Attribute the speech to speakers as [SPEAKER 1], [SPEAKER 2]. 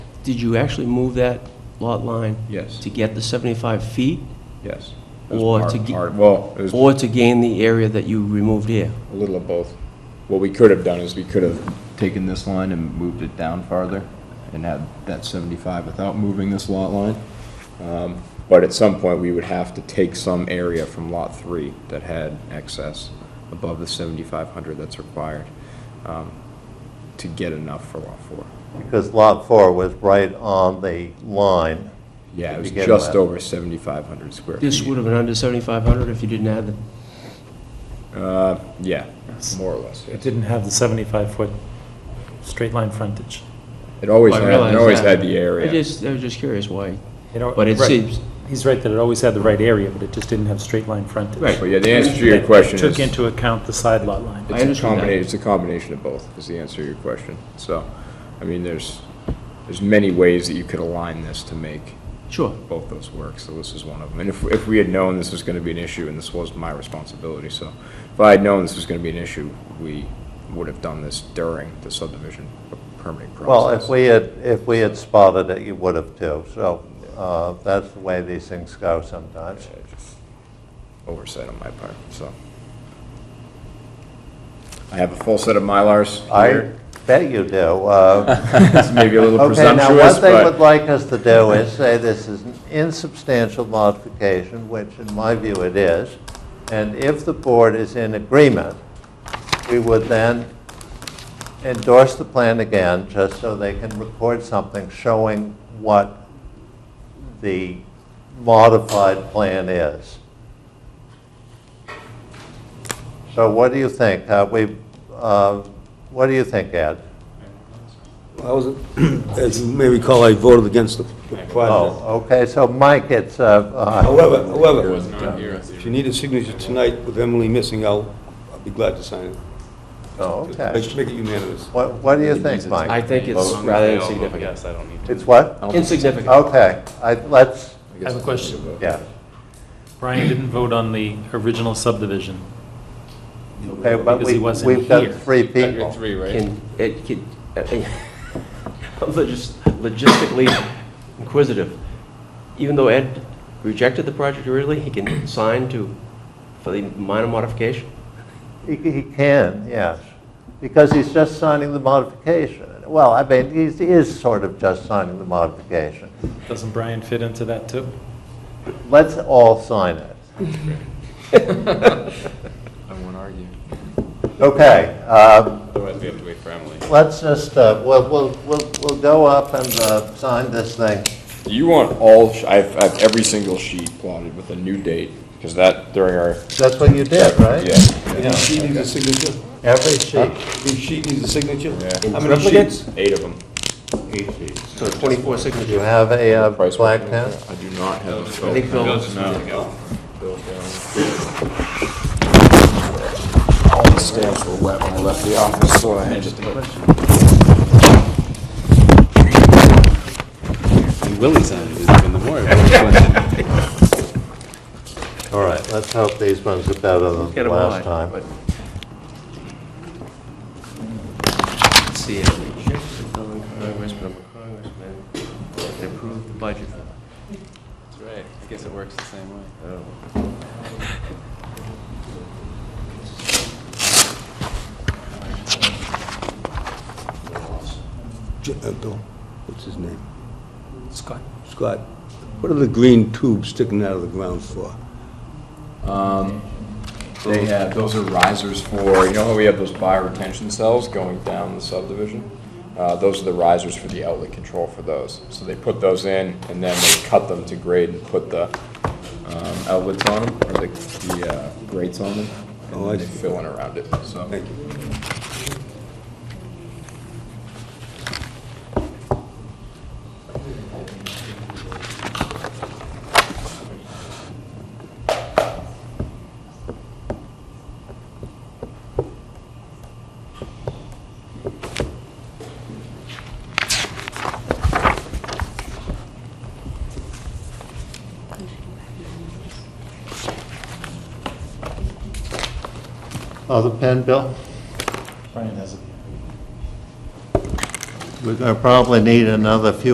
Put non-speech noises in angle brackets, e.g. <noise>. [SPEAKER 1] Did you actually move that lot line
[SPEAKER 2] Yes,
[SPEAKER 1] to get the 75 feet
[SPEAKER 2] yes. It was
[SPEAKER 1] Or
[SPEAKER 2] part-
[SPEAKER 1] to ge-
[SPEAKER 2] part- Well, it was
[SPEAKER 1] or to gain the area that you removed here?
[SPEAKER 2] a little of both. What we could have done is we could have taken this line and moved it down farther and had that 75 without moving this lot line. Um, But at some point, we would have to take some area from Lot 3 that had excess above the 7,500 that's required um, to get enough for Lot 4.
[SPEAKER 3] Because Lot 4 was right on the line.
[SPEAKER 2] Yeah, it was
[SPEAKER 3] Begin
[SPEAKER 2] just
[SPEAKER 3] with.
[SPEAKER 2] over 7,500 square feet.
[SPEAKER 1] This would have been under 7,500 if you didn't add the
[SPEAKER 2] Yeah, more or less. yeah.
[SPEAKER 4] It didn't have the 75-foot straight line frontage.
[SPEAKER 2] It always
[SPEAKER 1] I
[SPEAKER 2] had,
[SPEAKER 1] realize
[SPEAKER 2] it always
[SPEAKER 1] that.
[SPEAKER 2] had the area.
[SPEAKER 1] I just, I was just curious why,
[SPEAKER 4] You know,
[SPEAKER 1] but it
[SPEAKER 4] right.
[SPEAKER 1] seems,
[SPEAKER 4] He's right that it always had the right area, but it just didn't have straight line frontage.
[SPEAKER 1] Right.
[SPEAKER 2] But yeah, the answer to your question is.
[SPEAKER 4] Took into account the side lot line.
[SPEAKER 1] I
[SPEAKER 2] It's a
[SPEAKER 1] understand that.
[SPEAKER 2] combination, it's a combination of both, is the answer to your question. So, I mean, there's, there's many ways that you could align this to make
[SPEAKER 1] sure,
[SPEAKER 2] both those work, so this is one of them. And if, if we had known this was gonna be an issue, and this was my responsibility, so if I had known this was gonna be an issue, we would have done this during the subdivision permitting process.
[SPEAKER 3] Well, if we had, if we had spotted it, you would have too. So uh, that's the way these things go sometimes.
[SPEAKER 2] Oversight on my part, so. I have a full set of Mylars
[SPEAKER 3] I
[SPEAKER 2] here.
[SPEAKER 3] bet you do. Uh,
[SPEAKER 2] It's maybe a little
[SPEAKER 3] <laughs> Okay, now
[SPEAKER 2] presumptuous, but.
[SPEAKER 3] what they would like us to do is say this is an insubstantial modification, which in my view it is. And if the board is in agreement, we would then endorse the plan again, just so they can record something showing what the modified plan is. So what do you think? Uh, We, uh, what do you think, Ed?
[SPEAKER 5] I was, <clears throat> as you may recall, I voted against the the project.
[SPEAKER 3] Oh, okay, so Mike, it's, uh, uh,
[SPEAKER 5] However, however, if you need a signature tonight with Emily missing out, I'll be glad to sign it.
[SPEAKER 3] oh, okay.
[SPEAKER 5] Make- Make it unanimous.
[SPEAKER 3] What, what do you think,
[SPEAKER 1] I
[SPEAKER 3] Mike?
[SPEAKER 1] think it's rather insignificant.
[SPEAKER 6] Yes, I don't need to.
[SPEAKER 3] It's what?
[SPEAKER 1] Insignificant.
[SPEAKER 2] Oh,
[SPEAKER 3] Okay, I, let's,
[SPEAKER 4] I have a question.
[SPEAKER 3] yeah.
[SPEAKER 4] Brian didn't vote on the original subdivision.
[SPEAKER 3] Okay, but
[SPEAKER 4] Because he
[SPEAKER 3] we,
[SPEAKER 4] wasn't
[SPEAKER 3] we've got
[SPEAKER 4] here.
[SPEAKER 3] three people.
[SPEAKER 6] three, right?
[SPEAKER 1] Can, it, can, uh, <laughs> logis- logistically inquisitive. Even though Ed rejected the project originally, he can sign to, for the minor modification?
[SPEAKER 3] He, he can, yes, because he's just signing the modification. Well, I mean, he's, he is sort of just signing the modification.
[SPEAKER 4] Doesn't Brian fit into that, too?
[SPEAKER 3] Let's all sign it.
[SPEAKER 6] I won't argue.
[SPEAKER 3] Okay, uh,
[SPEAKER 6] Otherwise, we have to wait for Emily.
[SPEAKER 3] let's just, uh, we'll, we'll, we'll we'll go up and uh, sign this thing.
[SPEAKER 2] You want all, sh- I've, I've every single sheet plotted with a new date, because that during our,
[SPEAKER 3] That's what you did, right?
[SPEAKER 2] yeah.
[SPEAKER 5] Each sheet needs a signature?
[SPEAKER 3] Every sheet.
[SPEAKER 5] Each sheet needs a signature?
[SPEAKER 2] yeah.
[SPEAKER 5] How many sheets?
[SPEAKER 2] Eight of them.
[SPEAKER 1] So 24
[SPEAKER 3] Do you
[SPEAKER 1] signatures.
[SPEAKER 3] have a uh,
[SPEAKER 2] Price
[SPEAKER 3] black
[SPEAKER 2] one.
[SPEAKER 3] pen?
[SPEAKER 2] I do not have a
[SPEAKER 1] I
[SPEAKER 2] phone.
[SPEAKER 1] think Bill,
[SPEAKER 2] All the stamps were wet when I left the office, so I had to.
[SPEAKER 6] Willie's on it, is even the more. of a question.
[SPEAKER 3] All right, let's hope these ones are better than
[SPEAKER 1] get
[SPEAKER 3] the
[SPEAKER 1] them
[SPEAKER 3] last
[SPEAKER 1] all,
[SPEAKER 3] time.
[SPEAKER 1] but- Let's See, if we check the building congressman, congressman, they approved the budget.
[SPEAKER 6] That's right. I guess it works the same way.
[SPEAKER 5] J- uh, Bill, What's his name?
[SPEAKER 4] Scott.
[SPEAKER 5] Scott. What are the green tubes sticking out of the ground for?
[SPEAKER 2] They have, those are risers for, you know how we have those bioretention cells going down the subdivision? Uh, those are the risers for the outlet control for those. So they put those in, and then they cut them to grade and put the um, outlets on them, or the, the uh, grates on them, and
[SPEAKER 5] Oh, I
[SPEAKER 2] then they
[SPEAKER 5] see.
[SPEAKER 2] fill in around it, so.
[SPEAKER 5] Thank you.
[SPEAKER 3] Oh, the pen, Bill?
[SPEAKER 4] Brian has it.
[SPEAKER 3] We're going to probably need another few